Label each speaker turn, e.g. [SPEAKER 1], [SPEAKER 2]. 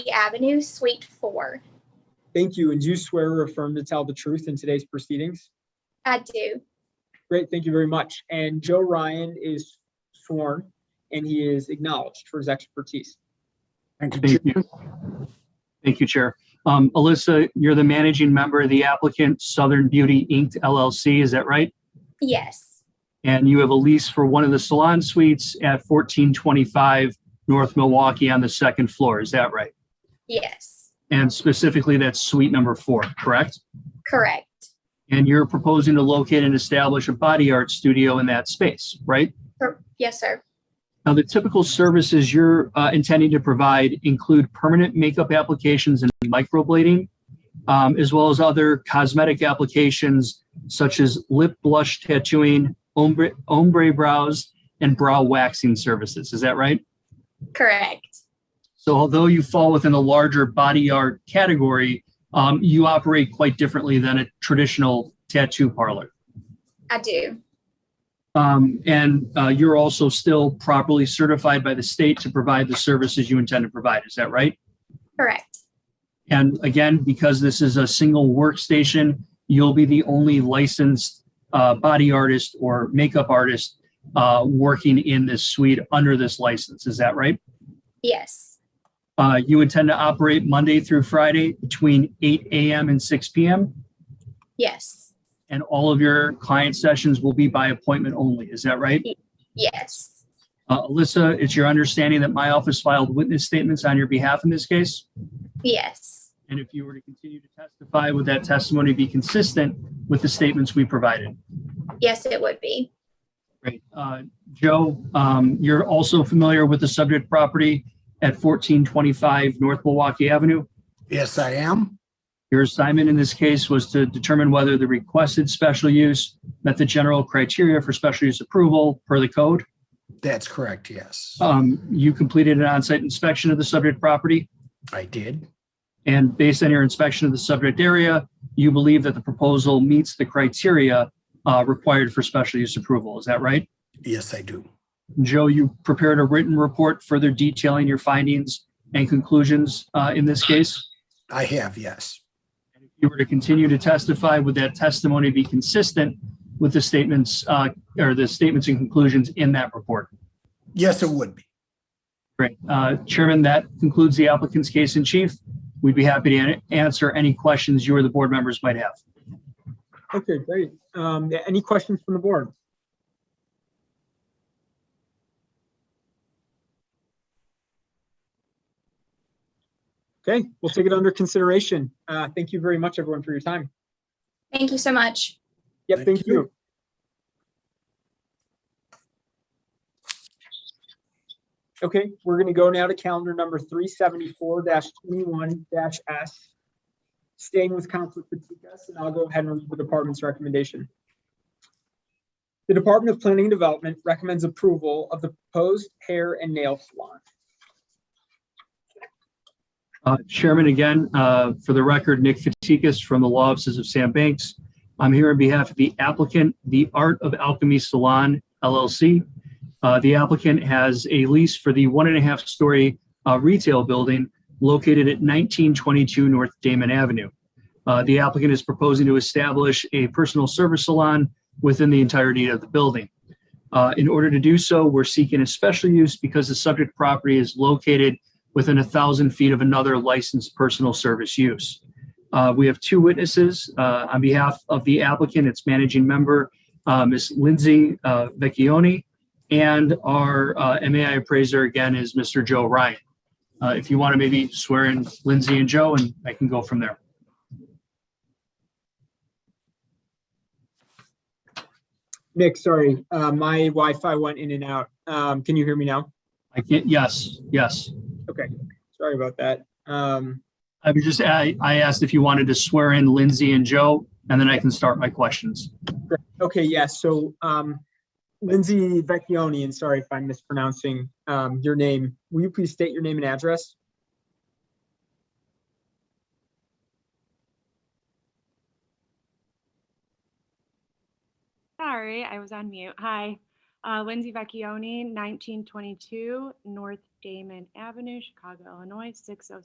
[SPEAKER 1] Avenue, Suite 4.
[SPEAKER 2] Thank you. And do you swear or affirm to tell the truth in today's proceedings?
[SPEAKER 1] I do.
[SPEAKER 2] Great, thank you very much. And Joe Ryan is sworn and he is acknowledged for his expertise.
[SPEAKER 3] Thank you.
[SPEAKER 4] Thank you. Thank you, Chair. Um, Alyssa, you're the managing member of the applicant Southern Beauty Inc. LLC, is that right?
[SPEAKER 1] Yes.
[SPEAKER 4] And you have a lease for one of the salon suites at 1425 North Milwaukee on the second floor, is that right?
[SPEAKER 1] Yes.
[SPEAKER 4] And specifically, that's suite number four, correct?
[SPEAKER 1] Correct.
[SPEAKER 4] And you're proposing to locate and establish a body art studio in that space, right?
[SPEAKER 1] Cor- Yes, sir.
[SPEAKER 4] Now, the typical services you're uh, intending to provide include permanent makeup applications and microblading, um, as well as other cosmetic applications such as lip blush tattooing, ombre, ombre brows, and brow waxing services. Is that right?
[SPEAKER 1] Correct.
[SPEAKER 4] So although you fall within the larger body art category, um, you operate quite differently than a traditional tattoo parlor.
[SPEAKER 1] I do.
[SPEAKER 4] Um, and uh, you're also still properly certified by the state to provide the services you intend to provide. Is that right?
[SPEAKER 1] Correct.
[SPEAKER 4] And again, because this is a single workstation, you'll be the only licensed uh, body artist or makeup artist uh, working in this suite under this license. Is that right?
[SPEAKER 1] Yes.
[SPEAKER 4] Uh, you intend to operate Monday through Friday between 8 a.m. and 6 p.m.
[SPEAKER 1] Yes.
[SPEAKER 4] And all of your client sessions will be by appointment only. Is that right?
[SPEAKER 1] Yes.
[SPEAKER 4] Uh, Alyssa, it's your understanding that my office filed witness statements on your behalf in this case?
[SPEAKER 1] Yes.
[SPEAKER 4] And if you were to continue to testify, would that testimony be consistent with the statements we provided?
[SPEAKER 1] Yes, it would be.
[SPEAKER 4] Great. Uh, Joe, um, you're also familiar with the subject property at 1425 North Milwaukee Avenue.
[SPEAKER 3] Yes, I am.
[SPEAKER 4] Your assignment in this case was to determine whether the requested special use met the general criteria for special use approval per the code.
[SPEAKER 3] That's correct. Yes,
[SPEAKER 4] Um, You completed an on-site inspection of the subject property.
[SPEAKER 3] I did.
[SPEAKER 4] And based on your inspection of the subject area, you believe that the proposal meets the criteria uh, required for special use approval. Is that right?
[SPEAKER 3] Yes, I do.
[SPEAKER 4] Joe, you prepared a written report further detailing your findings and conclusions uh, in this case.
[SPEAKER 3] I have, yes.
[SPEAKER 4] And If you were to continue to testify, would that testimony be consistent with the statements uh, or the statements and conclusions in that report?
[SPEAKER 3] Yes, it would be.
[SPEAKER 4] Great. Uh, Chairman, that concludes the applicant's case in chief. We'd be happy to an- answer any questions you or the board members might have.
[SPEAKER 2] Okay, great. Um, yeah, any questions from the board? Okay, we'll take it under consideration. Uh, thank you very much, everyone, for your time.
[SPEAKER 1] Thank you so much.
[SPEAKER 2] Yep,
[SPEAKER 3] Thank
[SPEAKER 2] thank
[SPEAKER 3] you.
[SPEAKER 2] you. Okay, we're gonna go now to calendar number three seventy-four twenty-one S. Staying with Council Fatikas, and I'll go ahead and read the department's recommendation. The Department of Planning and Development recommends approval of the proposed hair and nail salon.
[SPEAKER 4] Uh, Chairman, again, uh, for the record, Nick Fatikas from the Law Offices of Sam Banks. I'm here on behalf of the applicant, The Art of Alchemy Salon LLC. Uh, The applicant has a lease for the one and a half story uh, retail building located at 1922 North Damon Avenue. Uh, The applicant is proposing to establish a personal service salon within the entirety of the building. Uh, In order to do so, we're seeking a special use because the subject property is located within a thousand feet of another licensed personal service use. Uh, we have two witnesses uh, on behalf of the applicant, its managing member, uh, Ms. Lindsay uh, Vecchione, and our uh, MAI appraiser again is Mr. Joe Ryan. Uh, if you want to maybe swear in Lindsay and Joe, and I can go from there.
[SPEAKER 2] Nick, sorry, uh, my Wi-Fi went in and out. Um, can you hear me now?
[SPEAKER 4] I can yes, yes.
[SPEAKER 2] Sorry about that. Um,
[SPEAKER 4] I was just I, I asked if you wanted to swear in Lindsay and Joe, and then I can start my questions.
[SPEAKER 2] Okay, yes, so um, Lindsay Vecchione, and sorry if I'm mispronouncing um, your name, will you please state your name and address?
[SPEAKER 5] Sorry, I was on mute. Hi, uh, Lindsay Vecchione, 1922 North Damon Avenue, Chicago, Illinois, 60